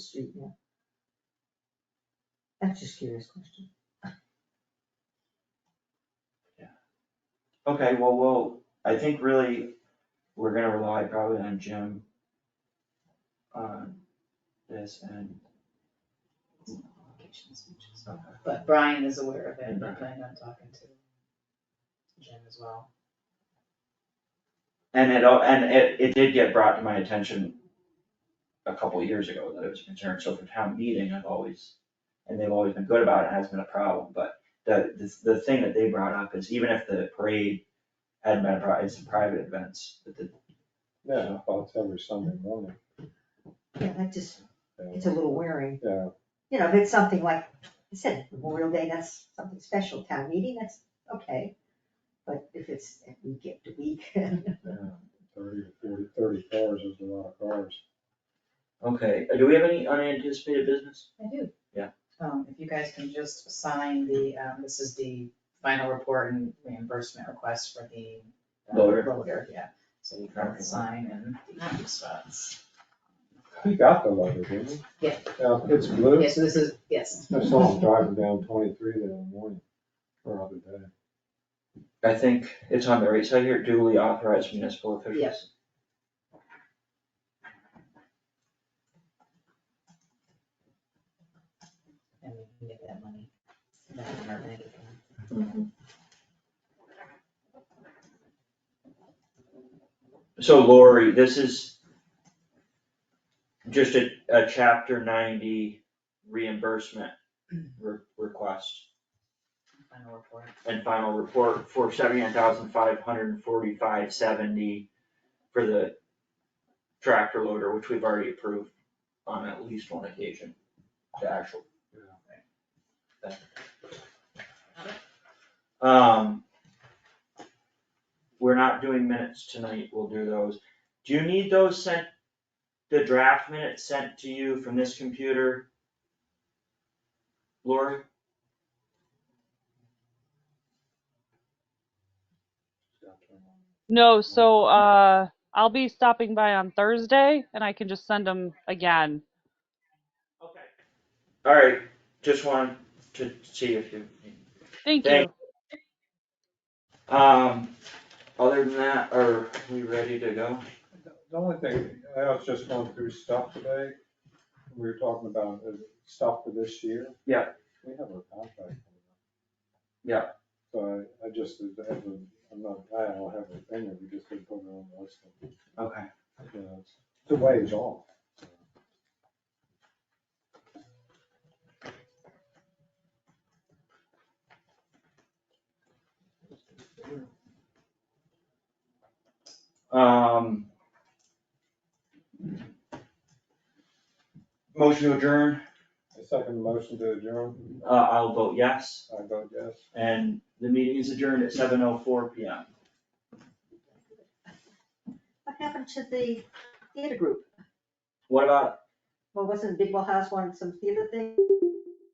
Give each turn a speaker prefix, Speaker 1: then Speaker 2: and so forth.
Speaker 1: street now? That's just curious question.
Speaker 2: Okay, well, well, I think really, we're gonna rely probably on Jim. On this and, okay,
Speaker 3: But Brian is aware of it, and I plan on talking to Jim as well.
Speaker 2: and it, al- and it, it did get brought to my attention. A couple of years ago that it was a concern, so for town meeting, I've always, and they've always been good about it, it hasn't been a problem, but. The, the, the thing that they brought up is even if the parade hadn't been, a pri- it's a private events, that the
Speaker 4: Yeah, well, it's every Sunday morning.
Speaker 1: Yeah, that just,
Speaker 4: yeah.
Speaker 1: it's a little wearing.
Speaker 4: Yeah,
Speaker 1: You know, if it's something like, I said, Memorial Day, that's something special, town meeting, that's okay. But if it's week after week,
Speaker 4: yeah, thirty or forty, thirty cars is a lot of cars.
Speaker 2: Okay, do we have any unanticipated business?
Speaker 3: I do.
Speaker 2: Yeah.
Speaker 3: Um, if you guys can just sign the, um, this is the final report and reimbursement request for the. uh,
Speaker 2: Loader.
Speaker 3: Loader, yeah, so you can sign in the two spots.
Speaker 4: He got the letter, didn't he?
Speaker 3: Yeah.
Speaker 4: Now, it's blue.
Speaker 3: Yeah, so this is, yes,
Speaker 4: I saw him driving down twenty-three the other morning, or other day.
Speaker 2: I think it's on the right side here, duly authorized municipal officials.
Speaker 3: Yes. and we can get that money. back in our bank account.
Speaker 2: So Lori, this is just a, a chapter ninety reimbursement re- request
Speaker 3: Final report.
Speaker 2: and final report for seventy-nine thousand five hundred and forty-five seventy for the tractor loader, which we've already approved on at least one occasion, the actual. Um, we're not doing minutes tonight, we'll do those. Do you need those sent, the draft minutes sent to you from this computer? Lori?
Speaker 5: No, so uh, I'll be stopping by on Thursday and I can just send them again.
Speaker 2: Okay. Alright, just wanted to see if you.
Speaker 5: Thank you.
Speaker 2: Thank- Um, other than that, are we ready to go?
Speaker 4: The only thing, I was just going through stuff today, we were talking about uh, stuff for this year.
Speaker 2: Yeah.
Speaker 4: We have a contract. coming up.
Speaker 2: Yeah.
Speaker 4: So I, I just, I haven't- I'm not, I don't have a thing, we just didn't put it on the list.
Speaker 2: Okay.
Speaker 4: you know, it's Two ways off.
Speaker 2: Um. Motion to adjourn,
Speaker 4: A second motion to adjourn,
Speaker 2: uh, I'll vote yes,
Speaker 4: I vote yes.
Speaker 2: and the meeting is adjourned at seven oh four P M.
Speaker 1: what happened to the theater group?
Speaker 2: What about,
Speaker 1: Well, wasn't Bigwell House wanted some theater thing?